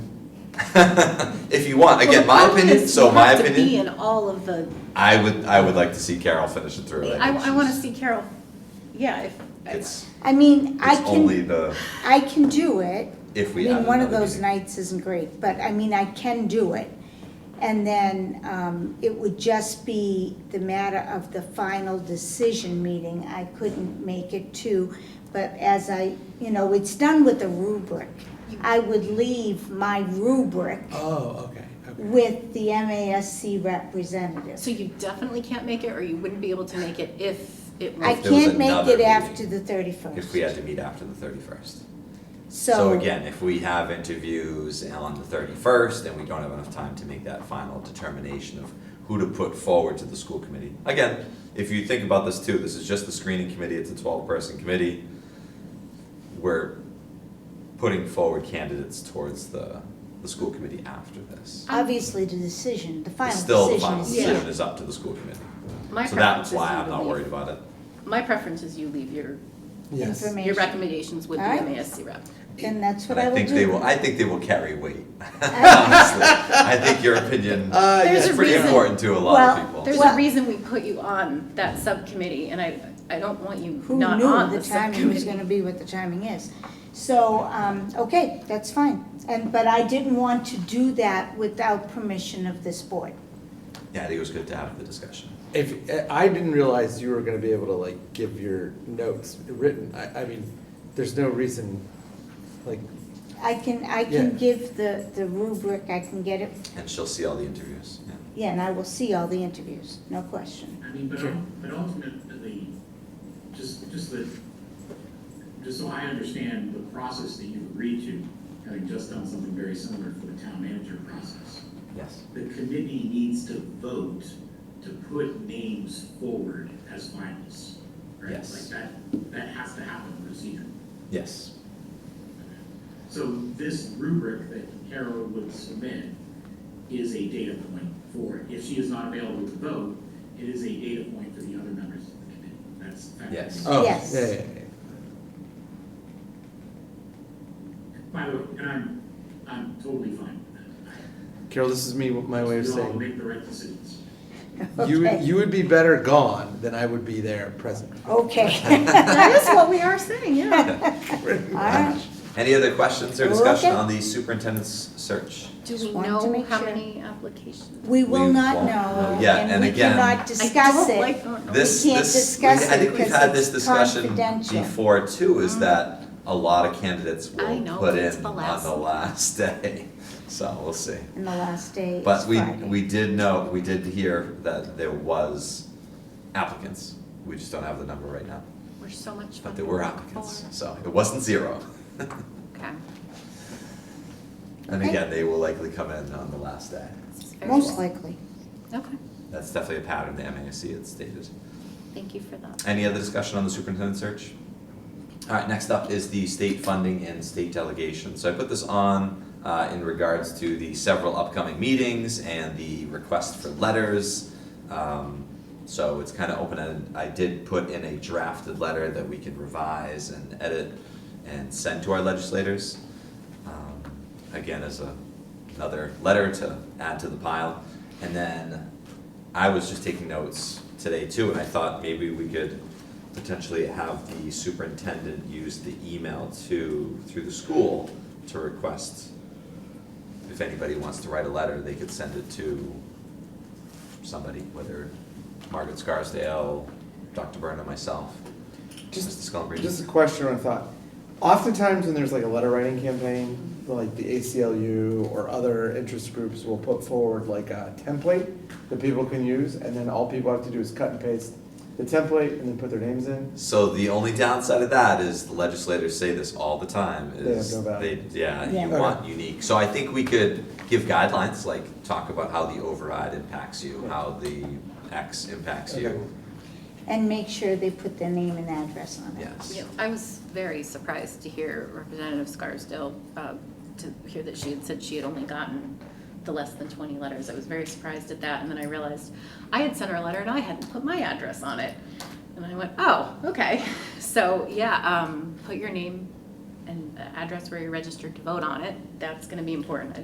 If you want, again, Well, my the problem opinion, is so you my have to be opinion, in all of the, I would, I would like to see Carol finish it through. I, think I wanna she's- see Carol, yeah, if, It's, I mean, I it's only can, the, I can do it. if I we have mean, one of another those meeting. nights isn't great, but I mean, I can do it. And then, um, it would just be the matter of the final decision meeting. I couldn't make it to, but as I, you know, it's done with a rubric. I would leave my rubric Oh, okay, okay. with the MASC representative. so you definitely can't make it, or you wouldn't be able to make it if it I was. If there was can't make another it meeting, after the thirty-first. If we had to meet after the thirty-first. So. So again, if we have interviews on the thirty-first and we don't have enough time to make that final determination of who to put forward to the school committee. Again, if you think about this too, this is just the screening committee, it's a twelve-person committee. We're putting forward candidates towards the, the school committee after this. Obviously, the decision, the final Still, the decision final is. decision Yeah. is up to the school committee. My So that's preference is why you I'm not leave- worried about it. My preference is you leave your, Yes. Informa- your recommendations with the Alright. MASC rep. Then that's what And I will do. think they will, I think they will carry weight, honestly. I think your opinion Uh, There's is yes. a pretty reason- important to a lot Well, of people. There's a Well- reason we put you on that subcommittee, and I, I don't want you Who not on knew the the timing was gonna subcommittee. be what the timing is? So, um, okay, that's fine. And, but I didn't want to do that without permission of this board. Yeah, I think it was good to have the discussion. If, eh, I didn't realize you were gonna be able to like give your notes written, I, I mean, there's no reason, like, I can, I Yeah. can give the, the rubric, I can get it, And she'll see all the interviews, yeah. yeah, and I will see all the interviews, no question. I mean, but, Sure. ul- but ultimately, just, just that, just so I understand the process that you've agreed to, having just done something very similar for the town manager process. Yes. The committee needs to vote to put names forward as finalists, right? Yes. Like that, that has to happen procedurally. Yes. So this rubric that Carol would submit is a data point for, if she is not available to vote, it is a data point for the other members of the committee. That's. fact. Yes. oh, yeah, Yes. yeah, yeah, yeah. By the way, and I'm, I'm totally fine with that. Carol, this is me, my way of You all saying, make the right decisions. you, would- Okay. Oh, you would be better gone than I would be there present. Okay. That is what we are saying, yeah. All right. Uh, Any other questions or discussion Okay. on the superintendent's search? Do we Just wanted to know make how sure. many applications? We will We not won't know, know yet, and and we again- I cannot discuss it. I don't like, oh, don't know. This, can't this, we- discuss I it think we've because had this it's discussion confidential. Uh-huh. before too, is that a lot of candidates I will know, put it's in the on last the one. last day, so we'll see. And the last day is But we, Friday. we did know, we did hear that there was applicants, we just don't have the number right now, We're so much. but there were applicants, so it wasn't zero. Okay. And Okay. again, they will likely come in on the last day. This is very Most well. likely. Okay, That's definitely a pattern the MASC had stated. thank you for that. Any other discussion on the superintendent search? All right, next up is the state funding and state delegation. So I put this on uh, in regards to the several upcoming meetings and the request for letters. Um, So it's kind of open-ended. I did put in a drafted letter that we can revise and edit and send to our legislators. Um, Again, as a, another letter to add to the pile. And then I was just taking notes today too, and I thought maybe we could potentially have the superintendent use the email to, through the school to request, if anybody wants to write a letter, they could send it to somebody, whether Margaret Scarsdale, Dr. Burnham, myself, Mr. Just, Scullenbridge. just a question or a thought. Oftentimes when there's like a letter writing campaign, like the ACLU or other interest groups will put forward like a template that people can use, and then all people have to do is cut and paste the template and then put their names in. So the only downside of that is the legislators say this all the time They have is no value. they, yeah, Yeah. you want unique. So I think we could give guidelines, like talk about how the override impacts you, how the X impacts Okay. you. And make sure they put their name and address on it. Yes. Yeah, I was very surprised to hear Representative Scarsdale, uh, to hear that she had said she had only gotten the less than twenty letters. I was very surprised at that, and then I realized I had sent her a letter and I hadn't put my address on it. And I went, oh, okay. So, yeah, um, put your name and uh, address where you're registered to vote on it. That's gonna be important. I